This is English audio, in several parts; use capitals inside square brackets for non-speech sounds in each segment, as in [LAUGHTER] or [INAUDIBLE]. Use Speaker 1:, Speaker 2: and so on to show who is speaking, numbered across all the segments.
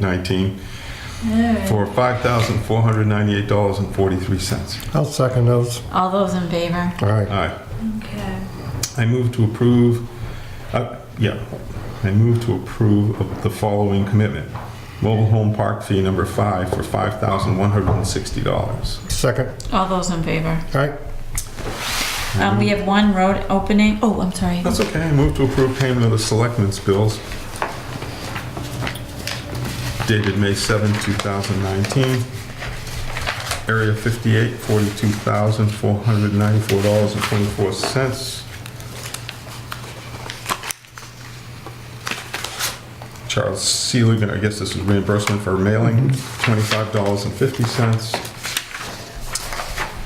Speaker 1: 19 for $5,498.43.
Speaker 2: I'll second those.
Speaker 3: All those in favor?
Speaker 2: All right.
Speaker 1: Aye.
Speaker 3: Okay.
Speaker 1: I move to approve, uh, yeah, I move to approve of the following commitment. Mobile home park fee number five for $5,160.
Speaker 2: Second.
Speaker 3: All those in favor?
Speaker 2: All right.
Speaker 3: Um, we have one road opening. Oh, I'm
Speaker 1: [LAUGHS]
Speaker 3: sorry.
Speaker 1: That's okay, I move to approve payment of the selectmen's bills dated May 7, 2019. Area 58, $42,494.24. Charles Seelig, I guess this is reimbursement for mailing, $25.50.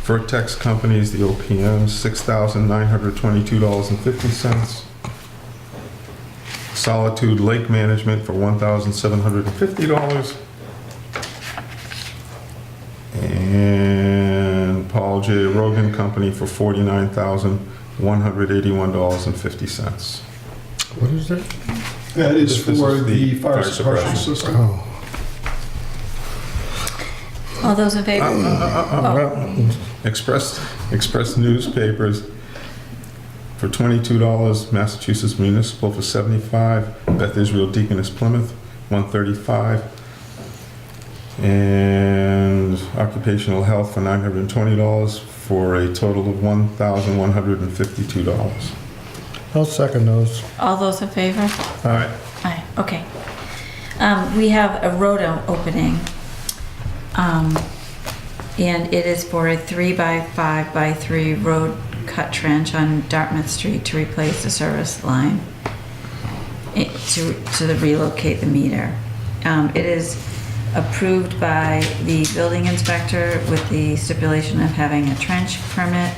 Speaker 1: Vertex Companies, the OPM, $6,922.50. Solitude Lake Management for $1,750. And Paul J. Rogan Company for $49,181.50.
Speaker 2: What is that?
Speaker 4: That
Speaker 1: This
Speaker 4: is for
Speaker 1: is
Speaker 4: the fire suppression
Speaker 1: suppression.
Speaker 4: system.
Speaker 2: Oh.
Speaker 3: All those in
Speaker 1: Uh,
Speaker 3: favor?
Speaker 2: Well,
Speaker 1: Express, Express Newspapers for $22, Massachusetts Municipal for 75, Beth Israel Deaconess Plymouth, 135, and Occupational Health for $920, for a total of $1,152.
Speaker 2: I'll second those.
Speaker 3: All those in favor?
Speaker 1: All right,
Speaker 3: Aye, okay. Um, we have a road o- opening. Um, and it is for a three by five by three road cut trench on Dartmouth Street to replace the service line. It, to, to the relocate the meter. Um, it is approved by the building inspector with the stipulation of having a trench permit.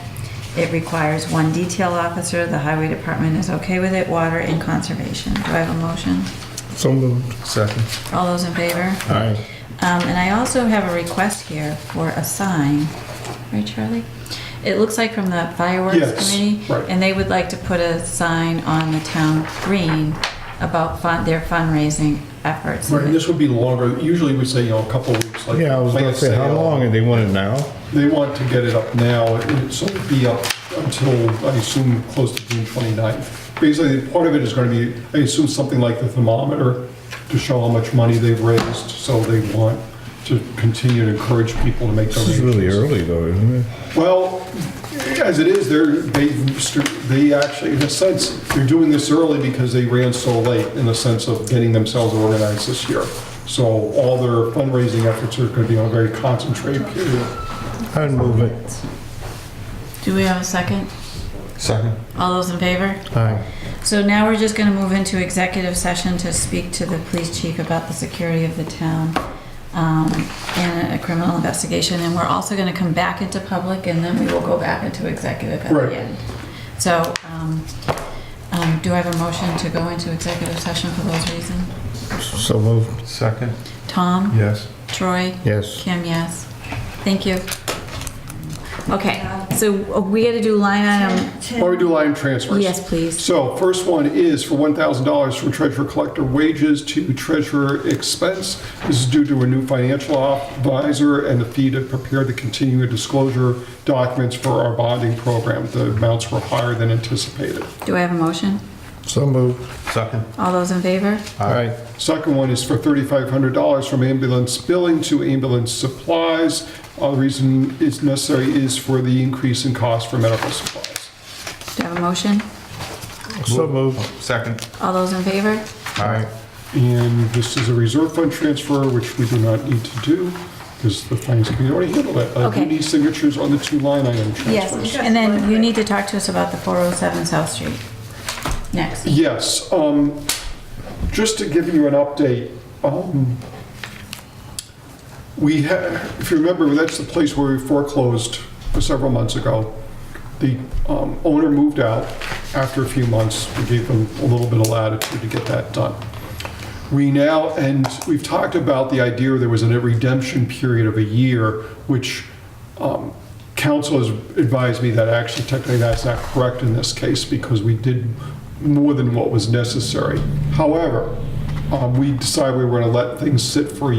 Speaker 3: It requires one detail officer, the highway department is okay with it, water and conservation. Do I have a motion?
Speaker 2: So moved.
Speaker 1: second.
Speaker 3: All those in favor?
Speaker 2: All right.
Speaker 3: Um, and I also have a request here for a sign, right, Charlie? It looks like from the fireworks
Speaker 4: Yes,
Speaker 3: committee,
Speaker 4: right.
Speaker 3: and they would like to put a sign on the town green about fun, their fundraising efforts.
Speaker 4: Right, and this would be longer, usually we say, you know, a couple of weeks, like.
Speaker 2: Yeah, I was
Speaker 4: like
Speaker 2: gonna
Speaker 4: a
Speaker 2: say, how
Speaker 4: sale.
Speaker 2: long? And they want it now?
Speaker 4: They want to get it up now, it- so it'd be up until, I assume, close to June 29th. Basically, part of it is gonna be, I assume, something like the thermometer to show how much money they've raised, so they want to continue to encourage people to make
Speaker 2: This
Speaker 4: donations.
Speaker 2: is really early though, isn't it?
Speaker 4: Well, as it is, they're, they've, st- they actually, in a sense, they're doing this early because they ran so late in the sense of getting themselves organized this year. So all their fundraising efforts are gonna be on a very concentrated period.
Speaker 2: I'd move it.
Speaker 3: Do we have a second?
Speaker 1: Second.
Speaker 3: All those in favor?
Speaker 2: All right.
Speaker 3: So now we're just gonna move into executive session to speak to the police chief about the security of the town um, in a criminal investigation, and we're also gonna come back into public, and then we will go back into executive at
Speaker 4: Right.
Speaker 3: the end. So, um, um, do I have a motion to go into executive session for those reasons?
Speaker 2: So moved.
Speaker 1: Second,
Speaker 3: Tom?
Speaker 1: yes.
Speaker 3: Troy?
Speaker 2: Yes.
Speaker 3: Kim, yes. Thank you. Okay, so we gotta do line item,
Speaker 4: Why we do line transfers?
Speaker 3: yes, please.
Speaker 4: So first one is for $1,000 from treasurer collector wages to treasurer expense. This is due to a new financial advisor and the fee to prepare the continuing disclosure documents for our bonding program. The amounts were higher than anticipated.
Speaker 3: Do I have a motion?
Speaker 2: So moved.
Speaker 1: Second,
Speaker 3: All those in favor?
Speaker 2: All right.
Speaker 4: Second one is for $3,500 from ambulance billing to ambulance supplies. Other reason it's necessary is for the increase in cost for medical supplies.
Speaker 3: Do I have a motion?
Speaker 2: So moved.
Speaker 1: second.
Speaker 3: All those in favor?
Speaker 2: All right.
Speaker 4: And this is a reserve fund transfer, which we do not need to do because the finance committee already handled it. Uh,
Speaker 3: Okay.
Speaker 4: We need signatures on the two line item transfers.
Speaker 3: And then you need to talk to us about the 407 South Street. Next.
Speaker 4: Yes, um, just to give you an update, um, we had, if you remember, that's the place where we foreclosed several months ago. The um, owner moved out after a few months. We gave them a little bit of latitude to get that done. We now, and we've talked about the idea there was a redemption period of a year, which um, council has advised me that actually technically that's not correct in this case because we did more than what was necessary. However, Um, We decided we were going to let things sit for a